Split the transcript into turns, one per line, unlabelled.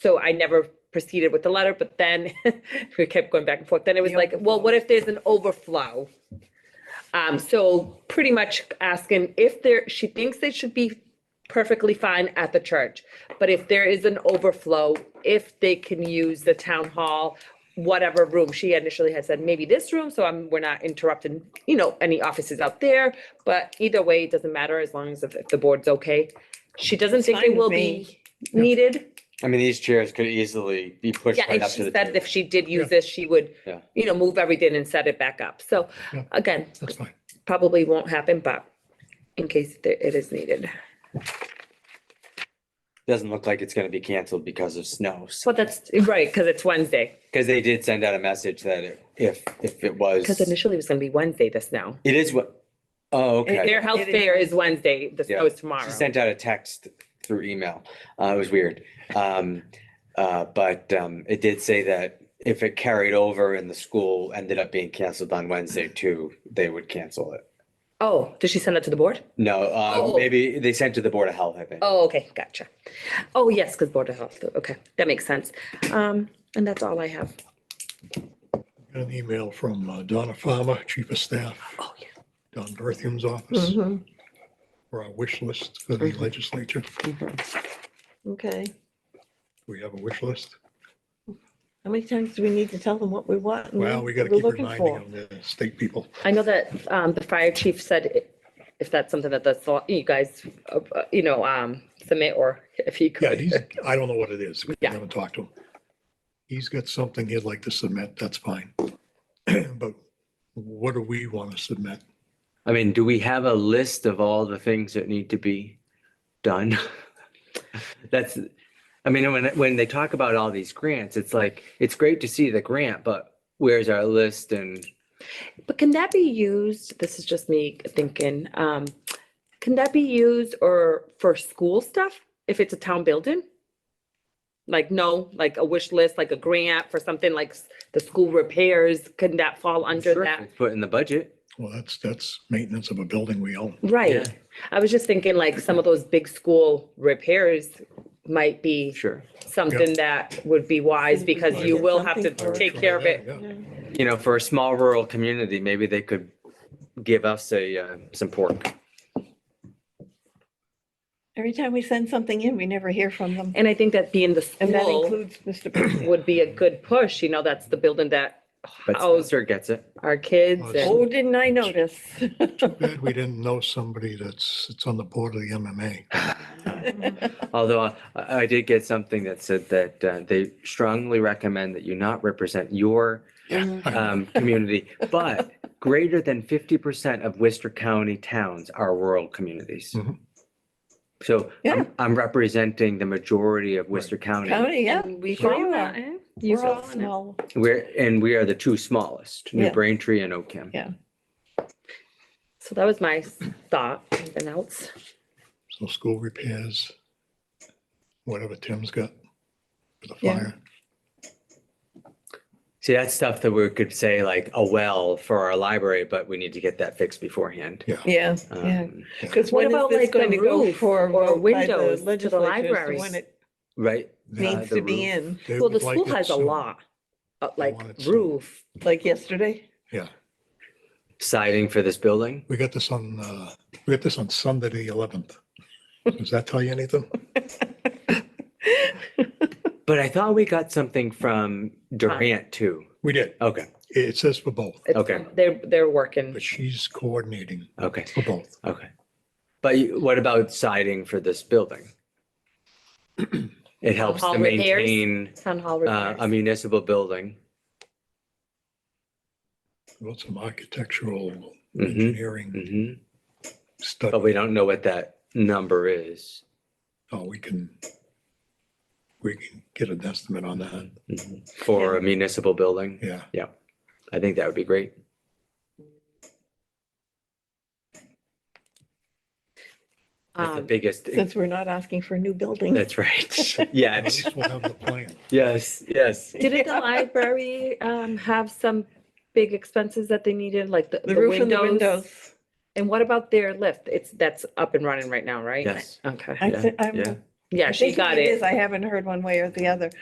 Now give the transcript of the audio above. so I never proceeded with the letter, but then we kept going back and forth. Then it was
The
like, well, what if there's an overflow? Um, so pretty much asking if there, she thinks they should be perfectly fine at the church. But if there is an overflow, if they can use the town hall, whatever room, she initially had said, maybe this room, so I'm, we're not interrupting, you know, any offices out there. But either way, it doesn't matter as long as if if the board's okay. She doesn't think they
fine with
will be
me.
needed.
I mean, these chairs could easily be pushed
Yeah,
right
and
up to
she
the
said
table.
if she did
Yeah.
use this, she would,
Yeah.
you know, move everything and set it back up. So
Yeah.
again,
That's fine.
probably won't happen, but in case there- it is needed.
Doesn't look like it's gonna be canceled because of snow.
Well, that's right, because it's Wednesday,
Because they did send out a message that it- if, if it was,
because
it
initially it was going to be Wednesday, the snow.
is what, oh, okay.
Their health
It is
fair is Wednesday, the
Yeah.
snow is tomorrow.
She sent out a text through email. Uh, it was weird. Um, uh, but, um, it did say that if it carried over and the school ended up being canceled on Wednesday too, they would cancel it.
Oh, did she send it to the board?
No, uh,
Oh.
maybe they sent to the Board of Health, I think.
Oh, okay, gotcha. Oh, yes, because Board of Health, okay, that makes sense. Um, and that's all I have.
Got an email from uh, Donna Farmer, Chief of Staff,
Oh, yeah.
Don Berthium's
Mm-hmm.
office,
Mhm,
for our wish list for the
Mhm.
legislature.
mhm.
Okay.
We have a wish list.
How many times do we need to tell them what we want?
Mm-hmm.
and
Well,
what
we gotta
we're
keep
looking
reminding
for?
them, they're the state people.
I know that, um, the fire chief said i- if that's something that that's, you guys, uh, uh, you know, um, submit or if he
Yeah,
could.
he's, I don't know what it is. We
Yeah.
haven't talked to him. He's got something he'd like to submit, that's fine. But what do we want to submit?
I mean, do we have a list of all the things that need to be done? That's, I mean, when, when they talk about all these grants, it's like, it's great to see the grant, but where's our list and?
But can that be used, this is just me thinking, um, can that be used or for school stuff if it's a town building? Like, no, like a wish list, like a grant for something like s- the school repairs, can that fall under
Sure,
that?
Put in the budget.
Well, that's, that's maintenance of a building we own.
Yeah.
Right, I was just thinking like some of those big school repairs might be
Sure.
something that would be wise because you
Yeah,
will have to
something for it.
take care of it.
Yeah.
Yeah.
You know, for a small rural community, maybe they could give us a, uh, some pork.
Every time we send something in, we never hear from them.
And I think that being the
And that
school
includes Mr. Percy.
would be a good push, you know, that's the building that
But
housed
Spencer gets it.
our kids
Oh,
and.
Oh, didn't I notice?
Glad we didn't know somebody that's, that's on the board of the MMA.
Although I, I did get something that said that uh, they strongly recommend that you not represent your um, community, but greater than fifty percent of Worcester County towns are rural communities.
Mhm.
So
Yeah.
I'm, I'm representing the majority of Worcester County.
County, yeah.
And we
Sure.
follow that, eh? You
We're all
follow that.
small.
We're, and we are the two smallest, New
Yeah.
Braintree and Oakham.
Yeah.
So that was my thought, anything else?
So school repairs, whatever Tim's got for the
Yeah.
fire.
See, that's stuff that we could say like a well for our library, but we need to get that fixed beforehand.
Yeah, yeah.
Um,
Because
uh, What
when is
about,
this
like, the
going to go
roof
for?
or
a vote by the
windows to the
legislature as
libraries?
When it
Right?
They-
Yeah,
needs
the
to be
roof.
in,
they
Well, the
would like
school
it
has a
soon.
law, uh, like
want it soon.
roof.
like yesterday.
Yeah,
Siding for this building?
we got this on, uh, we got this on Sunday, the eleventh. Does that tell you anything?
But I thought we got something from Durant too.
We did.
Okay,
It says for both,
It's-
Okay.
They're, they're working.
but she's coordinating
okay,
for both.
okay. But you- what about siding for this building? It helps
Hall
to
repairs?
maintain
Town hall
uh, a
repairs.
municipal building.
Wrote some architectural
Mhm,
engineering
mhm. But
stuff.
we don't know what that number is.
Oh, we can, we can get an estimate on that.
Mhm. For a municipal building,
Yeah.
I think that would be great. That's the
Um,
biggest,
Since we're not asking for a new building.
that's right. Yes,
At least we'll have the plan.
yes, yes.
Didn't the library, um, have some big expenses that they needed, like the
The
the
roof and the windows.
And what about their lift? It's, that's up and running right now, right?
Yes.
Okay.
I
Yeah,
thi- I'm
yeah.
Yeah,
I
she
think
got
it
it.
is. I haven't heard one way or the other.